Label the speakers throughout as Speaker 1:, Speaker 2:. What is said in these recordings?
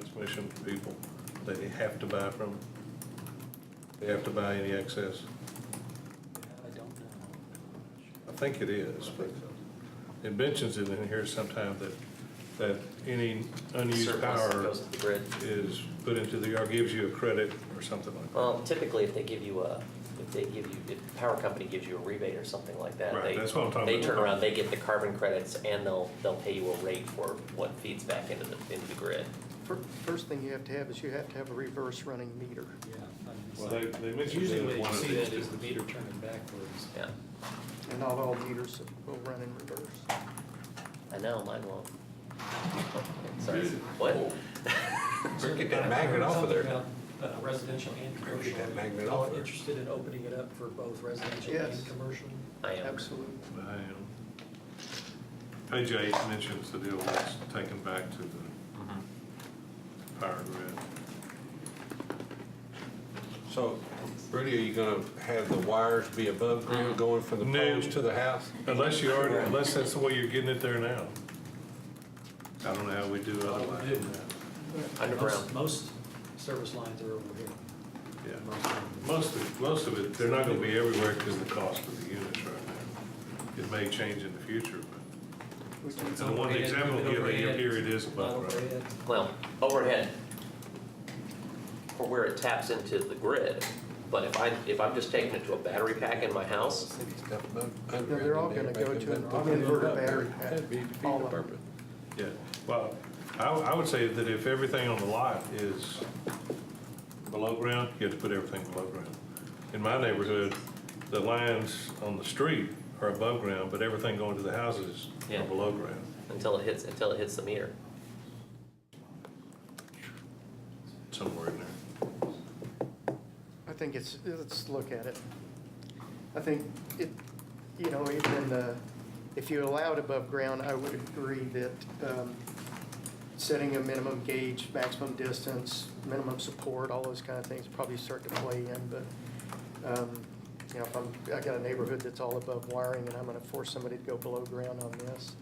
Speaker 1: transmission to people that they have to buy from? They have to buy any excess?
Speaker 2: I don't
Speaker 1: I think it is, but it mentions it in here sometime that, that any unused
Speaker 2: Surplus that
Speaker 1: power
Speaker 2: goes to the grid.
Speaker 1: is put into the, or gives you a credit or something like that.
Speaker 2: Well, Um, typically, if they give you a, if they give you, if the power company gives you a rebate or something like that,
Speaker 1: Right,
Speaker 2: they,
Speaker 1: that's what I'm talking
Speaker 2: they
Speaker 1: about.
Speaker 2: turn around, they get the carbon credits, and they'll, they'll pay you a rate for what feeds back into the, into the grid.
Speaker 3: Fir- First thing you have to have is you have to have a reverse running meter.
Speaker 1: Well, they, they mentioned
Speaker 4: Usually
Speaker 1: it
Speaker 4: what
Speaker 1: in
Speaker 4: you
Speaker 1: one of
Speaker 4: see
Speaker 1: these.
Speaker 4: that is the meter turning backwards.
Speaker 2: Yeah,
Speaker 3: And not all meters will run in reverse.
Speaker 2: I know, mine won't. Sorry, what?
Speaker 5: Get that magnet off of there.
Speaker 4: Something about, uh, Residential and
Speaker 5: Better
Speaker 4: commercial.
Speaker 5: get that magnet
Speaker 4: Y'all
Speaker 5: off there.
Speaker 4: interested in opening it up for both residential
Speaker 3: Yes.
Speaker 4: and commercial?
Speaker 2: I am.
Speaker 3: Absolutely.
Speaker 1: I am. Page eight mentions the deal that's taken back to the
Speaker 4: Mm-hmm.
Speaker 1: power grid.
Speaker 5: So, Rudy, are you gonna have the wires be above ground going from the
Speaker 1: No.
Speaker 5: poles to the house?
Speaker 1: Unless you already, unless that's the way you're getting it there now. I don't know how we do otherwise.
Speaker 2: Underground.
Speaker 4: Most most service lines are over here.
Speaker 1: Yeah.
Speaker 4: Most of them.
Speaker 1: Most of, most of it, they're not gonna be everywhere because of the cost of the units right now. It may change in the future, but,
Speaker 3: We can-
Speaker 1: and the one example given here, here it is uh, above,
Speaker 4: Not
Speaker 1: right?
Speaker 4: overhead.
Speaker 2: Well, overhead, for where it taps into the grid, but if I, if I'm just taking it to a battery pack in my house,
Speaker 5: No,
Speaker 3: No, they're all gonna go to an inverter battery pack.
Speaker 5: That'd be defeat
Speaker 3: All
Speaker 5: the
Speaker 3: of
Speaker 5: purpose.
Speaker 3: them.
Speaker 1: Yeah, well, I, I would say that if everything on the lot is below ground, you have to put everything below ground. In my neighborhood, the lines on the street are above ground, but everything going to the houses
Speaker 2: Yeah.
Speaker 1: are below ground.
Speaker 2: until it hits, until it hits the meter.
Speaker 1: somewhere in there.
Speaker 3: I think it's, let's look at it. I think it, you know, even, uh, if you allow it above ground, I would agree that um, setting a minimum gauge, maximum distance, minimum support, all those kind of things probably start to play in, but, um, you know, if I'm, I got a neighborhood that's all above wiring and I'm gonna force somebody to go below ground on this.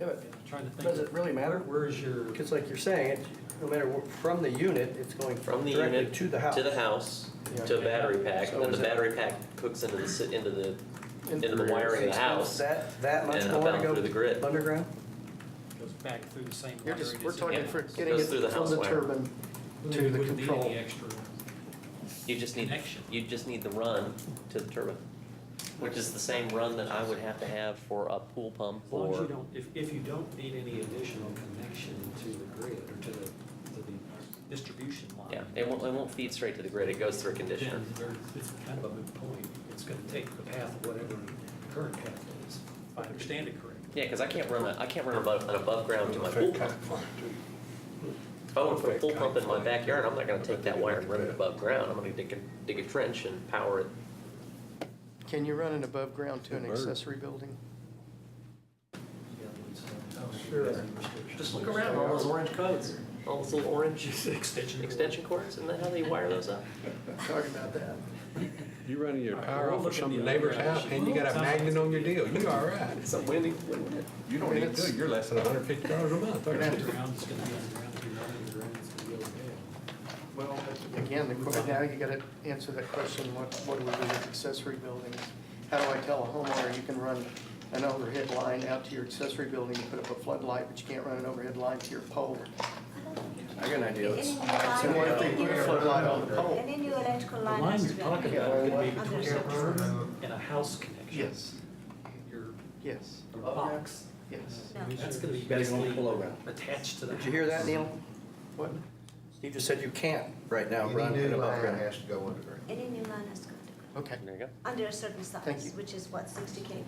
Speaker 6: Yeah, but
Speaker 4: I'm Trying to think.
Speaker 6: Does it really matter?
Speaker 4: Where is your,
Speaker 6: Because like you're saying, it, no matter, what- from the unit, it's going
Speaker 2: From the
Speaker 6: directly
Speaker 2: unit.
Speaker 6: to the house.
Speaker 2: To the house, to a battery pack, and then the battery pack hooks into the, si- into the, into the wiring of the house.
Speaker 6: That, that much
Speaker 2: and
Speaker 6: more to
Speaker 2: about
Speaker 6: go
Speaker 2: through the grid.
Speaker 6: underground?
Speaker 4: goes back through the same
Speaker 3: You're
Speaker 4: wiring.
Speaker 3: just, we're
Speaker 4: as-
Speaker 3: talking
Speaker 2: Yeah.
Speaker 3: for
Speaker 2: It
Speaker 3: getting
Speaker 2: goes
Speaker 3: it
Speaker 2: through the
Speaker 3: from
Speaker 2: house
Speaker 3: the
Speaker 2: wire.
Speaker 3: turbine to
Speaker 4: We
Speaker 3: the
Speaker 4: wouldn't need any
Speaker 3: control.
Speaker 4: extra.
Speaker 2: You just need,
Speaker 4: Connection.
Speaker 2: you just need the run to the turbine, which is the same run that I would have to have for a pool pump
Speaker 4: As long as you
Speaker 2: or.
Speaker 4: don't, if, if you don't need any additional connection to the grid or to the, to the distribution line.
Speaker 2: Yeah, it won't, it won't feed straight to the grid, it goes through a conditioner.
Speaker 4: Then there- it's kind of a moot point. It's gonna take the path of whatever the current path is, if I understand it correctly.
Speaker 2: Yeah, because I can't run a, I can't run above, an above ground to my pool pump. If I want to put a pool pump in my backyard, I'm not gonna take that wire and run it above ground, I'm gonna dig a, dig a trench and power it.
Speaker 3: Can you run an above ground to an
Speaker 5: Bird.
Speaker 3: accessory building?
Speaker 4: Oh, Sure. Just look around, all those orange codes,
Speaker 2: All those little orange
Speaker 4: extension. cords.
Speaker 2: extension cords, isn't that how they wire those up?
Speaker 3: Talking about that.
Speaker 5: You running your
Speaker 4: we're
Speaker 5: power off
Speaker 4: looking
Speaker 5: of some
Speaker 4: the other
Speaker 5: neighbor's
Speaker 4: direction.
Speaker 5: house and you got a magnet on your deal, you all right.
Speaker 2: It's a winning, win-win.
Speaker 5: You don't need
Speaker 3: It's-
Speaker 5: to, you're less than hundred and fifty dollars a month, aren't you?
Speaker 4: Underground, it's gonna be underground, if you're not underground, it's gonna be overhead.
Speaker 3: Well, again, the que- now you gotta answer that question, what, what do we do with accessory buildings? How do I tell a homeowner you can run an overhead line out to your accessory building and put up a floodlight, but you can't run an overhead line to your pole?
Speaker 6: I got an idea. Let's-
Speaker 3: So what if they put a floodlight on the pole?
Speaker 7: Any new electrical
Speaker 4: The
Speaker 7: line
Speaker 4: line
Speaker 7: has to
Speaker 4: you're
Speaker 7: be.
Speaker 4: talking about could
Speaker 7: underground.
Speaker 4: be between
Speaker 7: Under
Speaker 4: a
Speaker 7: substructure.
Speaker 4: berm and a house connection.
Speaker 3: Yes,
Speaker 4: Your,
Speaker 3: yes,
Speaker 4: your
Speaker 6: Oh,
Speaker 4: box,
Speaker 3: yes.
Speaker 4: that's gonna be
Speaker 6: Guys, you want
Speaker 4: basically
Speaker 6: to pull over.
Speaker 4: attached to the.
Speaker 6: Did you hear that,
Speaker 4: house.
Speaker 6: Neil?
Speaker 3: What?
Speaker 6: Steve just said you can't right now
Speaker 8: Any
Speaker 6: run
Speaker 8: new
Speaker 6: an above
Speaker 8: line
Speaker 6: ground.
Speaker 8: has to go underground.
Speaker 7: No, Any new line has to go underground,
Speaker 3: Okay.
Speaker 2: There you go,
Speaker 7: under a certain
Speaker 3: Thank you.
Speaker 7: size, which is what, 60 kV?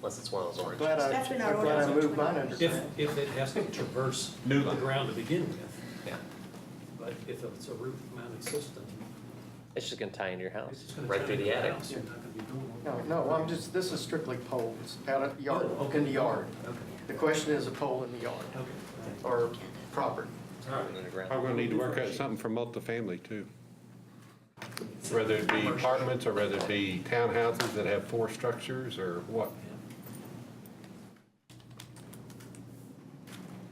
Speaker 2: unless it's one of those orange.
Speaker 3: Glad I,
Speaker 7: That's been our
Speaker 3: I'm glad I
Speaker 7: ordinance.
Speaker 3: moved mine underground.
Speaker 4: If, if it has to traverse
Speaker 5: New
Speaker 4: the
Speaker 5: line.
Speaker 4: ground to begin with,
Speaker 2: Yeah,
Speaker 4: but if it's a roof mounted system,
Speaker 2: it's just gonna tie into your
Speaker 4: it's
Speaker 2: house,
Speaker 4: just gonna.
Speaker 2: right
Speaker 4: tie
Speaker 2: through the
Speaker 4: into
Speaker 2: attic.
Speaker 4: house, You're not gonna be doing. all
Speaker 3: No,
Speaker 4: that.
Speaker 3: no, I'm just, this is strictly poles, out of yard,
Speaker 4: Oh, okay.
Speaker 3: in the yard.
Speaker 4: Okay,
Speaker 3: The question is a pole in the yard
Speaker 4: okay, all right.
Speaker 3: or property.
Speaker 4: all right.
Speaker 5: I'm gonna need to work out something for multifamily too. Whether it be apartments or whether it be townhouses that have four structures or what.